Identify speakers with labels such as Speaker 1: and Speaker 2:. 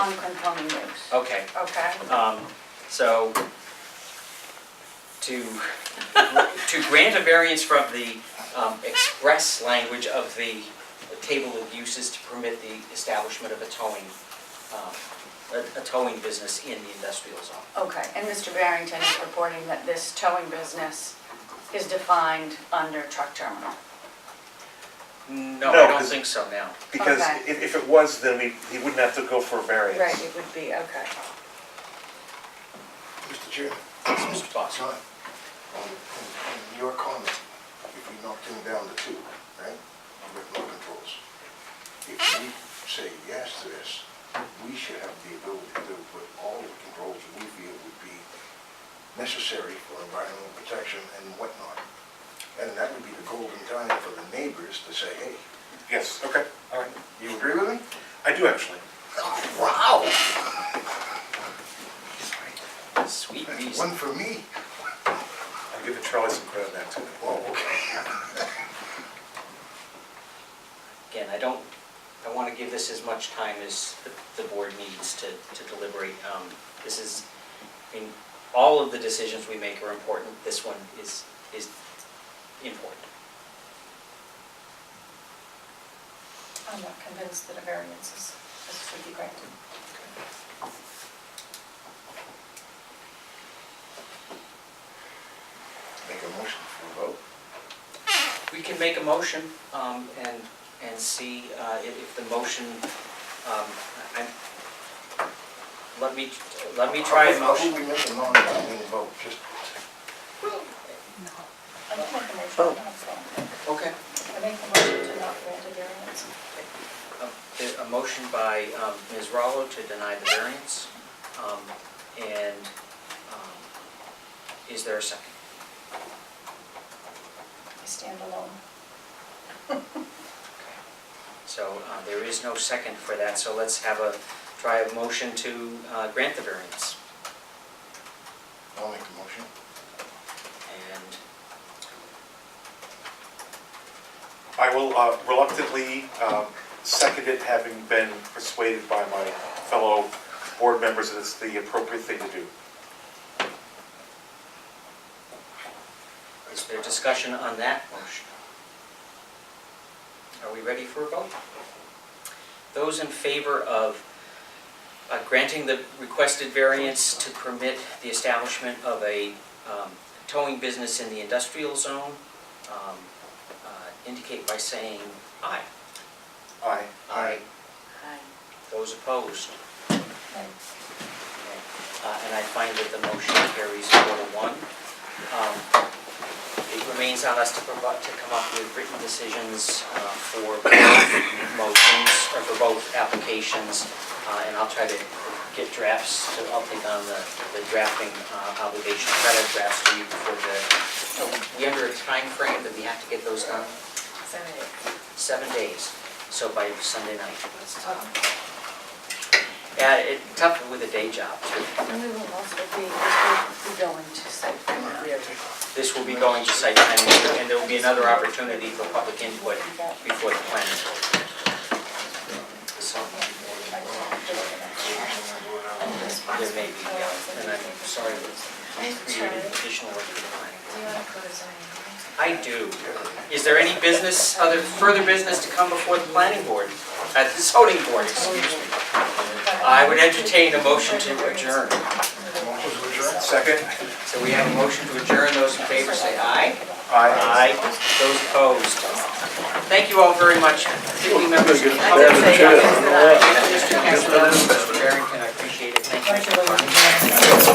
Speaker 1: Conklin Plumbing Works.
Speaker 2: Okay,
Speaker 3: Okay.
Speaker 2: um, so to, to grant a variance from the um, express language of the table of uses to permit the establishment of a towing, um, a- a towing business in the industrial zone.
Speaker 1: Okay, and Mr. Barrington is reporting that this towing business is defined under truck terminal.
Speaker 2: No,
Speaker 4: No,
Speaker 2: I don't
Speaker 4: 'cause-
Speaker 2: think so now.
Speaker 4: Because
Speaker 1: Okay.
Speaker 4: if, if it was, then we, he wouldn't have to go for a variance.
Speaker 1: Right, it would be, okay.
Speaker 5: Mr. Chairman,
Speaker 2: Mr. Boss.
Speaker 5: John, on, on your comment, if we knock them down to two, right, with no controls, if we say yes to this, we should have the ability to put all the controls we feel would be necessary for environmental protection and whatnot. And that would be the golden time for the neighbors to say, hey,
Speaker 4: Yes, okay, all right.
Speaker 5: you agree with me?
Speaker 4: I do actually.
Speaker 5: Wow!
Speaker 2: Sweet
Speaker 5: That's
Speaker 2: reason.
Speaker 5: one for me.
Speaker 4: I'm giving Charlie some credit back too.
Speaker 5: Oh, okay.
Speaker 2: Again, I don't, I want to give this as much time as the- the board needs to to deliberate. Um, This is, I mean, all of the decisions we make are important. This one is, is important.
Speaker 1: I'm not convinced that a variance is, this should be granted.
Speaker 5: Make a motion for a vote.
Speaker 2: We can make a motion um, and, and see uh, if if the motion, um, I, let me, let me try a
Speaker 5: How
Speaker 2: motion.
Speaker 5: should we make a non-binding vote, just,
Speaker 6: I make a motion, not so.
Speaker 2: Okay.
Speaker 6: I make a motion to not grant a variance.
Speaker 2: A- A motion by um, Ms. Rallo to deny the variance. Um, And um, is there a second?
Speaker 6: I stand alone.
Speaker 2: So uh, there is no second for that, so let's have a, try a motion to uh, grant the variance.
Speaker 5: I'll make the motion.
Speaker 2: And
Speaker 4: I will uh, reluctantly um, second it, having been persuaded by my fellow board members that it's the appropriate thing to do.
Speaker 2: is there discussion on that motion? Are we ready for a vote? Those in favor of uh, granting the requested variance to permit the establishment of a um, towing business in the industrial zone um, uh, indicate by saying aye.
Speaker 4: Aye.
Speaker 1: Aye.
Speaker 2: Those opposed?
Speaker 6: Right.
Speaker 2: Uh, And I find that the motion carries four to one. Um, It remains on us to provide, to come up with written decisions uh, for both motions, or for both applications, uh, and I'll try to get drafts, to- I'll take on the the drafting uh, obligation, try to draft to you before the, we under a time frame that we have to get those done? Seven days, so by Sunday night. Yeah, it, tough with a day job, too.
Speaker 1: And we will also be, we'll be going to site plan review.
Speaker 2: This will be going to site plan review, and there will be another opportunity for public input before the planning board. So there may be, uh, and I'm sorry, it's created additional work for the planning board. I do. Is there any business, other, further business to come before the planning board, uh, the zoning board, excuse me? I would entertain a motion to adjourn.
Speaker 5: Motion to adjourn?
Speaker 4: Second?
Speaker 2: So we have a motion to adjourn, those in favor say aye. Aye. Those opposed. Thank you all very much, particularly members of the public.
Speaker 1: I did say, I missed it